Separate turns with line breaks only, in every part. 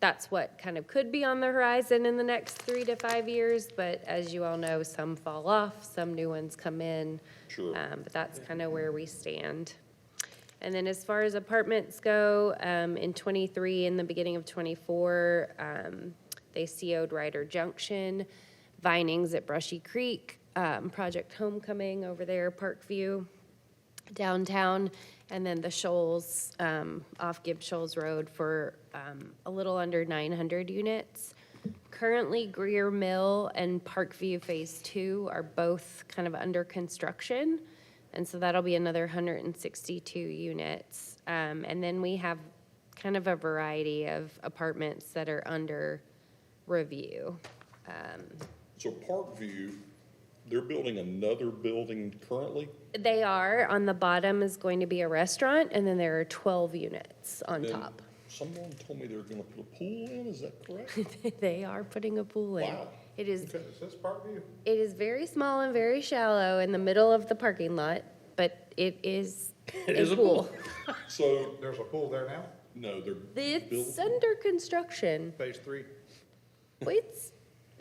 that's what kind of could be on the horizon in the next three to five years. But as you all know, some fall off, some new ones come in.
Sure.
Um, But that's kind of where we stand. And then as far as apartments go, um, in twenty-three, in the beginning of twenty-four, um, they CO'd Ryder Junction, Vinings at Brushy Creek, um, Project Homecoming over there, Parkview, downtown, and then the Shoals, um, off Gibb Shoals Road for, um, a little under nine hundred units. Currently Greer Mill and Parkview Phase Two are both kind of under construction. And so that'll be another 162 units. Um, And then we have kind of a variety of apartments that are under review.
So Parkview, they're building another building currently?
They are, on the bottom is going to be a restaurant, and then there are 12 units on
Then
top.
Someone told me they're gonna put a pool in, is that correct?
They are putting a pool in.
Wow.
It is
Is this Parkview?
It is very small and very shallow in the middle of the parking lot, but it is a pool.
So,
There's a pool there now,
no, they're
It's
building,
under construction.
phase three.
It's,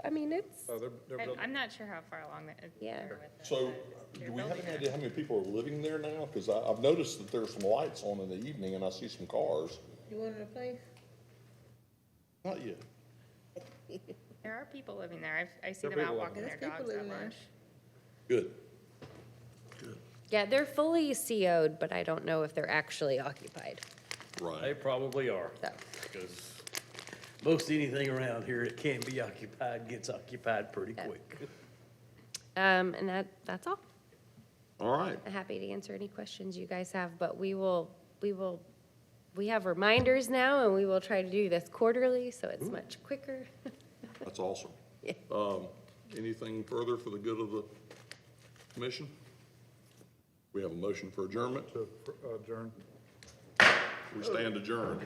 I mean, it's,
Oh, they're, they're
I'm,
building.
I'm not sure how far along that. it-
Yeah.
they're with it,
so
but they're
do we have
building
any
it.
idea how many people are living there now? Cause I, I've noticed that there's some lights on in the evening and I see some cars.
You wanted a place?
Not yet.
There are people living there. I've, I see
There are
them out
people
walking
living
their
there. There's
dogs
people
at
living there.
lunch.
Good.
yeah, they're fully CO'd, but I don't know if they're actually occupied,
They
Right.
probably are,
so.
because most anything around here that can be occupied gets occupied pretty
Yeah.
quick.
Um, and that, that's all.
All right.
I'm happy to answer any questions you guys have, but we will, we will, we have reminders now, and we will try to do this quarterly, so it's much quicker.
That's awesome.
Yeah.
Um, anything further for the good of the commission? We have a motion for adjournment.
To uh, adjourn.
We stand adjourned.